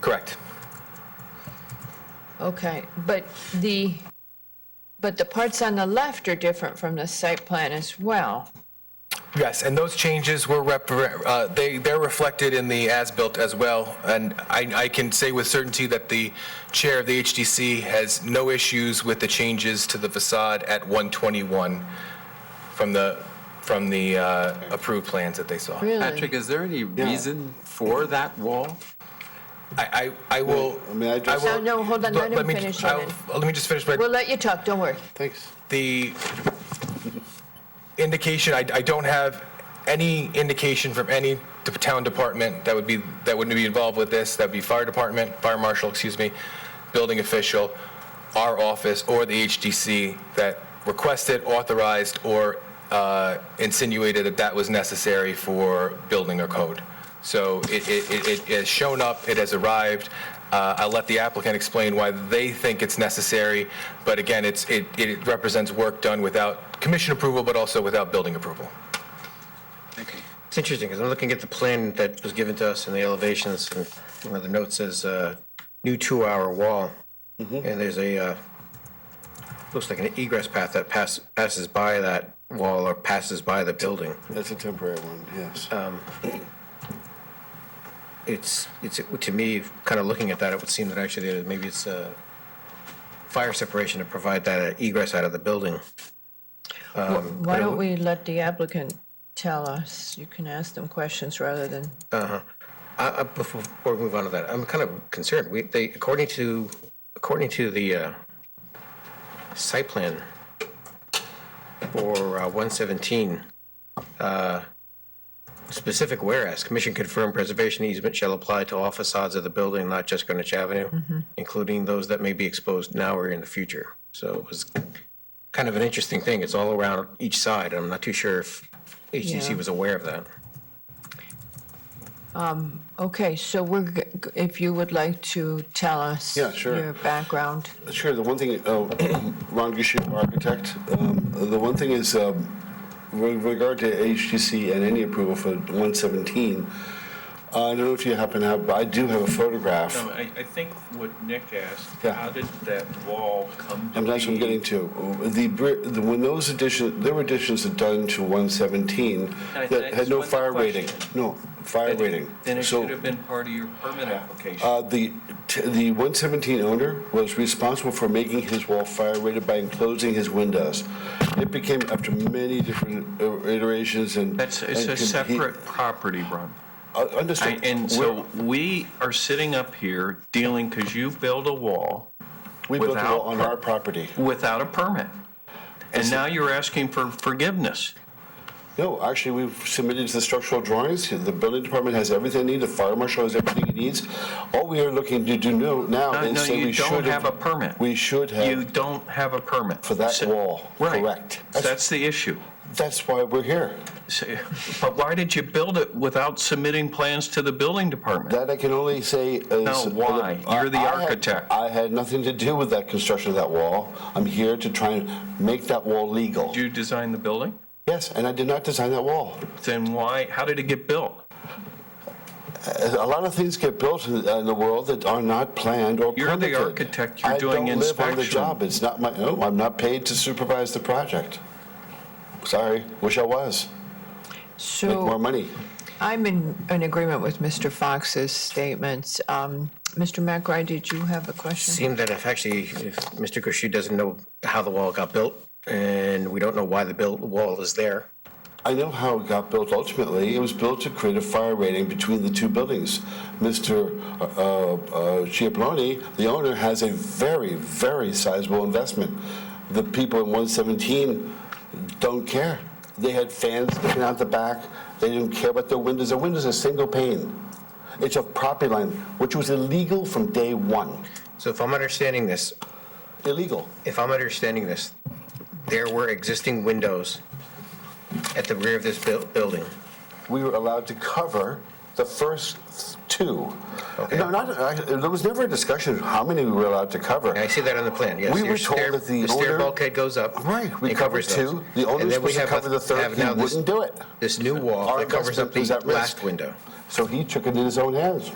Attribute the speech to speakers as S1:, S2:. S1: Correct.
S2: Okay, but the, but the parts on the left are different from the site plan as well.
S1: Yes, and those changes were, rep- uh, they, they're reflected in the as-built as well. And I, I can say with certainty that the chair of the HDC has no issues with the changes to the facade at 121 from the, from the uh, approved plans that they saw. I,
S2: Really?
S3: Patrick, is there any reason for that wall?
S1: I, I will.
S4: I mean, I just-
S1: will-
S2: No, no, hold on, let him
S1: me-
S2: finish,
S1: I'll-
S2: Shannon.
S1: Let me just finish, but
S2: We'll let you talk, don't worry.
S4: Thanks.
S1: the indication, I, I don't have any indication from any de- town department that would be, that would be involved with this, that'd be fire department, fire marshal, excuse me, building official, our office, or the HDC that requested, authorized, or uh, insinuated that that was necessary for building a code. So it, it, it- it has shown up, it has arrived. Uh, I'll let the applicant explain why they think it's necessary, but again, it's, it, it represents work done without commission approval, but also without building approval.
S5: It's interesting, because I'm looking at the plan that was given to us and the elevations, and one of the notes says, uh, new two-hour wall. And there's a, uh, looks like an egress path that pass, passes by that wall or passes by the building.
S4: That's a temporary one, yes. Uh,
S5: It's, it's, to me, kind of looking at that, it would seem that actually there- maybe it's a fire separation to provide that uh, egress out of the building.
S2: Why don't we let the applicant tell us? You can ask them questions rather than,
S5: I- I- Before before we move on to that, I'm kind of concerned. We, they, according to, according to the uh, site plan for uh, 117, uh, specific whereas, commission confirmed preservation easement shall apply to all facades of the building, not just Greenwich Avenue, including those that may be exposed now or in the future. So it was kind of an interesting thing. It's all around each side. I'm not too sure if HTC
S2: Yeah.
S5: was aware of that.
S2: okay, so we're, g- g- if you would like to tell us
S4: Yeah, sure.
S2: your background.
S4: Sure, the one thing, oh, Ron Gishu, architect, um, the one thing is, um, with regard to HTC and any approval for 117, uh, I don't know if you happen to have, but I do have a photograph.
S6: No, I, I think what Nick asked,
S4: Yeah.
S6: how did that wall come to
S4: I'm
S6: be?
S4: that's what I'm getting to. The, bri- the- when those additions, there were additions that done to 117
S6: I-
S4: that
S6: I
S4: had no
S6: just want
S4: fire
S6: the
S4: rating.
S6: question.
S4: No, fire rating.
S6: Then it
S4: So-
S6: should have been part of your permit application.
S4: Uh, The, t- the 117 owner was responsible for making his wall fire rated by enclosing his windows. It became, after many different uh, iterations and.
S6: That's, it's
S4: and
S6: a
S4: con- he-
S6: separate property, Ron.
S4: Uh,
S6: I-
S4: Understood.
S6: And so we are sitting up here dealing, because you build a wall
S4: We built a wall
S6: without
S4: on our property.
S6: without a permit. And now you're asking for forgiveness.
S4: No, actually, we've submitted the structural drawings. The building department has everything it needs. The fire marshal has everything it needs. All we are looking to do no- now
S6: No,
S4: is
S6: no,
S4: say we
S6: you
S4: should have.
S6: don't have a permit.
S4: We should
S6: You
S4: have
S6: don't have a permit.
S4: for that
S6: So-
S4: wall.
S6: Right.
S4: Correct.
S6: That's the issue.
S4: That's why we're here.
S6: So- But why did you build it without submitting plans to the building department?
S4: That I can only say is.
S6: No, why? You're the
S4: I- I had-
S6: architect.
S4: I had nothing to do with that construction of that wall. I'm here to try and make that wall legal.
S6: Did you design the building?
S4: Yes, and I did not design that wall.
S6: Then why, how did it get built?
S4: A lot of things get built in uh, in the world that are not planned or
S6: You're the
S4: permitted.
S6: architect. You're doing
S4: I don't live on the
S6: inspection.
S4: job. It's not my, no, I'm not paid to supervise the project. Sorry, wish I was. Make more
S2: So
S4: money.
S2: I'm in, in agreement with Mr. Fox's statements. Um, Mr. McRae, did you have a question?
S5: seemed that if actually, if Mr. Kushi doesn't know how the wall got built, and we don't know why the built wall is there,
S4: I know how it got built ultimately. It was built to create a fire rating between the two buildings. Mr. uh, uh, Chiappelloni, the owner, has a very, very sizable investment. The people in 117 don't care. They had fans sticking out the back. They didn't care about their windows. Their windows are single pane. It's a property line, which was illegal from day one.
S5: so if I'm understanding this,
S4: Illegal.
S5: if I'm understanding this, there were existing windows at the rear of this buil- building.
S4: we were allowed to cover the first two.
S5: Okay.
S4: No, not, I- there was never a discussion of how many we were allowed to cover.
S5: And I see that on the plan, yes.
S4: We
S5: your
S4: were told
S5: stair-
S4: that the
S5: stair
S4: owner-
S5: bulkhead goes up.
S4: Right, we
S5: and
S4: covered
S5: covers those.
S4: two, the owner
S5: And
S4: was
S5: then we
S4: supposed to
S5: have a-
S4: cover the third,
S5: have
S4: he
S5: now this-
S4: wouldn't do it.
S5: This new wall
S4: Our
S5: that covers up
S4: investment
S5: the
S4: was at risk.
S5: last window.
S4: So he took it in his own hands.